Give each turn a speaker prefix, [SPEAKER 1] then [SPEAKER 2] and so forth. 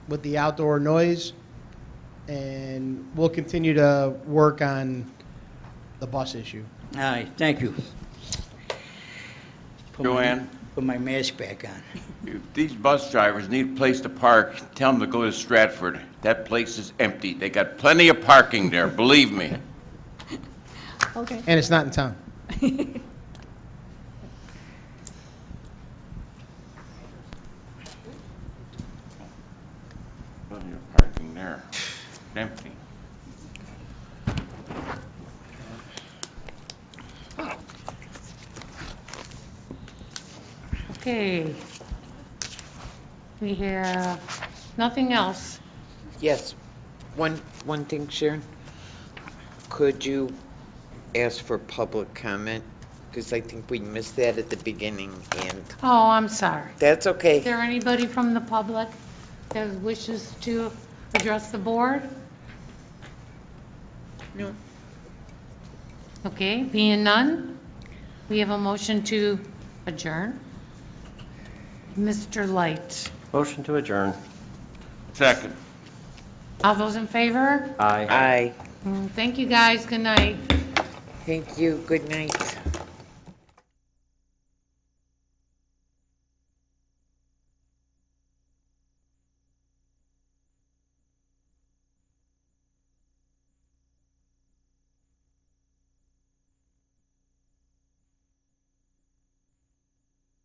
[SPEAKER 1] with the outdoor noise, and we'll continue to work on the bus issue.
[SPEAKER 2] All right, thank you. Put my-
[SPEAKER 3] Joanne?
[SPEAKER 2] Put my mask back on.
[SPEAKER 3] If these bus drivers need a place to park, tell them to go to Stratford. That place is empty. They got plenty of parking there, believe me.
[SPEAKER 4] Okay.
[SPEAKER 1] And it's not in town.
[SPEAKER 3] Plenty of parking there, empty.
[SPEAKER 5] Okay. We have nothing else.
[SPEAKER 6] Yes, one, one thing, Sharon. Could you ask for public comment? Because I think we missed that at the beginning, and
[SPEAKER 5] Oh, I'm sorry.
[SPEAKER 6] that's
[SPEAKER 5] Is
[SPEAKER 6] okay.
[SPEAKER 5] there anybody from the public that wishes to address the board?
[SPEAKER 6] No.
[SPEAKER 5] Okay, being none, we have a motion to adjourn. Mr. Light,
[SPEAKER 7] Motion to adjourn.
[SPEAKER 3] Second.
[SPEAKER 5] all those in favor?
[SPEAKER 7] Aye.
[SPEAKER 6] Aye.
[SPEAKER 5] Mm, Thank you, guys. Good night.
[SPEAKER 6] Thank you, good night.